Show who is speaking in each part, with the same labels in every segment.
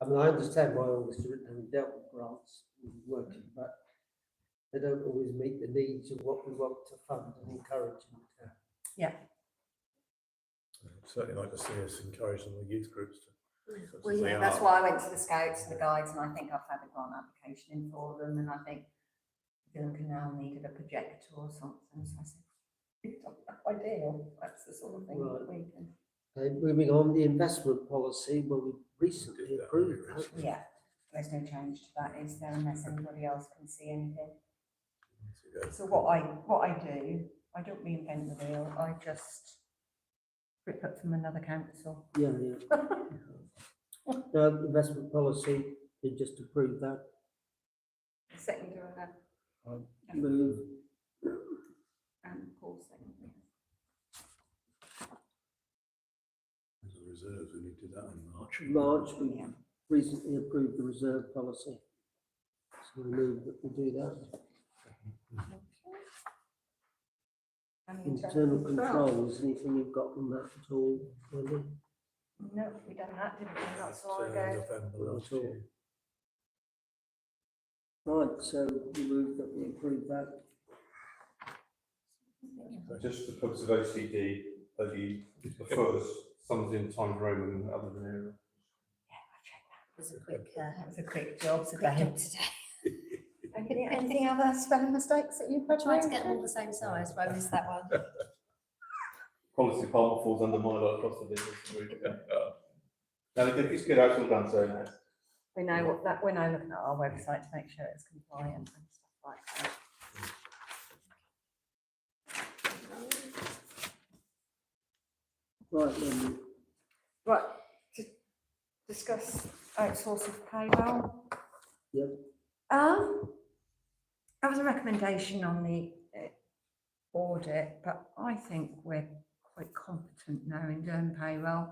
Speaker 1: I mean, I understand why all this is written and dealt with grants and working, but they don't always meet the needs of what we want to fund and encourage in the town.
Speaker 2: I'd Certainly like to see us encourage some of the youth groups to. such
Speaker 3: Well,
Speaker 2: as they
Speaker 3: yeah, that's
Speaker 2: are.
Speaker 3: why I went to the scouts and the guides and I think I've had a grant application in for them and I think Gilham Canal needed a projector or something, so I said, "It's not ideal, that's the sort of thing that we can,
Speaker 1: Okay, moving on, the investment policy, well, we
Speaker 2: Did
Speaker 1: recently
Speaker 2: that
Speaker 1: approved
Speaker 2: really
Speaker 1: that.
Speaker 2: recently.
Speaker 3: yeah. There's no change to that, is there, unless anybody else can see anything. So what I, what I do, I don't reinvent the wheel, I just rip up from another council.
Speaker 1: Yeah, yeah. Now, the investment policy, we just approved that.
Speaker 3: Second, or that,
Speaker 1: Move,
Speaker 3: and Paul um, second.
Speaker 2: There's a reserve, and we did that in March.
Speaker 1: March, we
Speaker 3: Yeah.
Speaker 1: recently approved the reserve policy. So we move that we do that.
Speaker 3: And the
Speaker 1: Internal controls, anything you've got on that at all, Wendy?
Speaker 3: No, we done that, didn't we, not so long
Speaker 2: Uh,
Speaker 3: ago.
Speaker 2: November
Speaker 1: Not
Speaker 2: last
Speaker 1: at all.
Speaker 2: year.
Speaker 1: Right, so we move that we approve that.
Speaker 4: Just the purpose of OCD, that you prefer something in Times Roman other than era.
Speaker 5: was a quick, uh,
Speaker 3: That was a quick job
Speaker 5: quick
Speaker 3: today.
Speaker 5: job today.
Speaker 3: Any- Anything other spelling mistakes that you've
Speaker 5: I tried to get them all the same size, but I missed that one.
Speaker 4: Policy department falls under my lot across the business. No, it- it's good, actually done, so nice.
Speaker 3: We know what that, we're now looking at our website to make sure it's compliant and stuff like that.
Speaker 1: Right, then,
Speaker 3: Right, to discuss outsourcing of payroll.
Speaker 1: Yep.
Speaker 3: Um, that was a recommendation on the eh, audit, but I think we're quite competent now in doing payroll.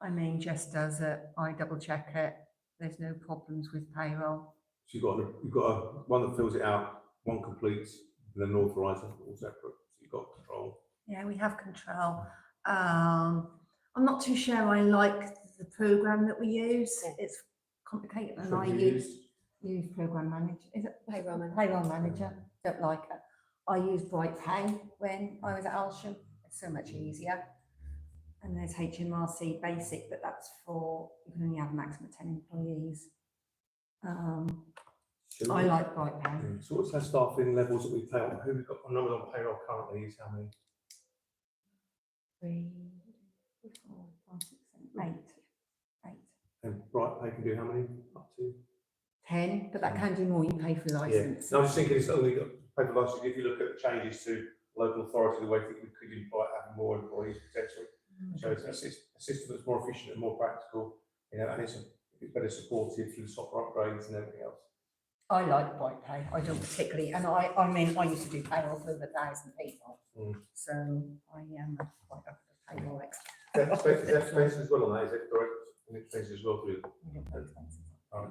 Speaker 3: I mean, just as a, I double check it, there's no problems with payroll.
Speaker 4: So you've got, you've got a- one that fills it out, one completes, and then authorises it all separate. So you've got control.
Speaker 3: Yeah, we have control. Um, I'm not too sure I like the program that we use.
Speaker 5: Yeah.
Speaker 3: It's complicated and
Speaker 4: So
Speaker 3: I
Speaker 4: you
Speaker 3: use
Speaker 4: use-
Speaker 3: use program manager, is it
Speaker 5: Payroll manager.
Speaker 3: payroll manager? Don't like it. I used Bright Pay when I was at Alsham. It's so much easier. And there's HMRC Basic, but that's for, you can only have a maximum of ten employees. Um, I like Bright Pay.
Speaker 4: Mm. So what's our staffing levels that we pay on? Who we've got, I know we're on payroll currently, is how many?
Speaker 3: Three, four, five, six, seven, eight, eight.
Speaker 4: And Bright Pay can do how many? Up to?
Speaker 3: 10, but that can do more, you pay for the
Speaker 4: Yeah,
Speaker 3: license.
Speaker 4: no, I was just thinking, it's only got paper license, if you look at the changes to local authority, the way that we could invite having more employees potentially.
Speaker 3: Mm.
Speaker 4: So it's a sys- a system that's more efficient and more practical, you know, and it's, a- it's better supported through software upgrades and everything else.
Speaker 3: I like white pay, I don't particularly, and I, I mean, I used to do payroll for over a thousand people.
Speaker 4: Mm.
Speaker 3: So I am quite a payroll expert.
Speaker 4: Death space, death space as well on that, is it correct? And it says as well through,
Speaker 3: We don't have expenses.
Speaker 4: Alright.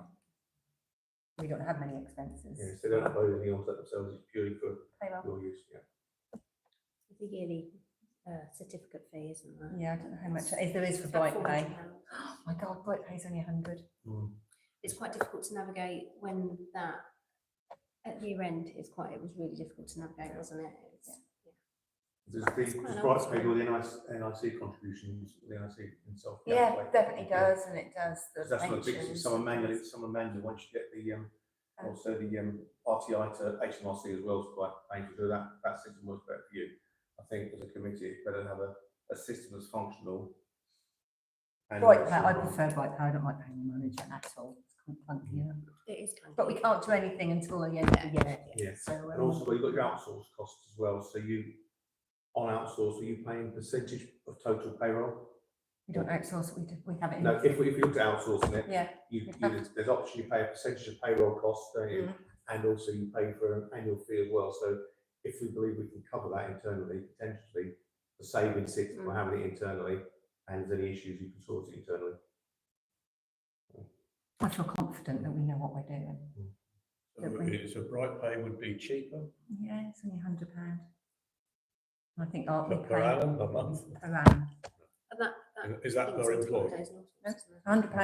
Speaker 3: We don't have many
Speaker 4: you know,
Speaker 3: expenses.
Speaker 4: so they don't upload any onto themselves, it's purely for
Speaker 3: Payroll.
Speaker 4: your use, yeah.
Speaker 5: The yearly uh, certificate fee, isn't there?
Speaker 3: Yeah, I don't know how much, if there is for
Speaker 5: It's about
Speaker 3: white pay.
Speaker 5: £40.
Speaker 3: Oh My God, white pay's only 100.
Speaker 5: It's quite difficult to navigate when that, at year end, it's quite, it was really difficult to navigate, wasn't it? It's-
Speaker 4: Does the,
Speaker 5: That's quite
Speaker 4: does
Speaker 5: an
Speaker 4: Bright
Speaker 5: old
Speaker 4: Pay do all
Speaker 5: school.
Speaker 4: the NIC, NIC contributions, the NIC itself?
Speaker 3: Yeah,
Speaker 4: like-
Speaker 3: definitely
Speaker 4: yeah.
Speaker 3: does, and it does
Speaker 4: Because
Speaker 3: the
Speaker 4: That's what it is,
Speaker 3: pensions.
Speaker 4: someone manually, someone manually, once you get the, um,
Speaker 3: Um,
Speaker 4: also the, um, RTI to HMRC as well, so like, thank you for that, that system works better for you. I think as a committee, it's better to have a, a system that's functional. and
Speaker 3: White pay,
Speaker 4: also-
Speaker 3: I prefer white pay, I don't like payroll manager at all. It's quite clunky, yeah.
Speaker 5: It is kind of.
Speaker 3: But we can't do anything until the end of the year.
Speaker 4: Yeah.
Speaker 3: So, um,
Speaker 4: And also, well, you've got your outsource costs as well, so you, on outsource, are you paying percentage of total payroll?
Speaker 3: we don't outsource, it, we do, we have it in.
Speaker 4: No, if we, if you look at outsourcing it,
Speaker 3: Yeah,
Speaker 4: you,
Speaker 3: We'd
Speaker 4: you,
Speaker 3: have-
Speaker 4: there's- there's option, you pay a percentage of payroll costs, don't you? And also you pay for an annual fee as well, so if we believe we can cover that internally, potentially, the saving six, we're having it internally, and there's any issues, you can sort it internally.
Speaker 3: I feel confident that we know what we're doing.
Speaker 2: So it would be- So bright pay would be cheaper
Speaker 3: Yeah, it's only hundred pound. I think aren't we
Speaker 2: per per
Speaker 3: paying
Speaker 2: annum, a month.
Speaker 3: around
Speaker 5: And that, that.
Speaker 2: Is that
Speaker 5: includes
Speaker 2: per
Speaker 5: all the
Speaker 2: employee?
Speaker 5: holidays and all sorts,
Speaker 3: No.
Speaker 5: isn't it?
Speaker 3: hundred pound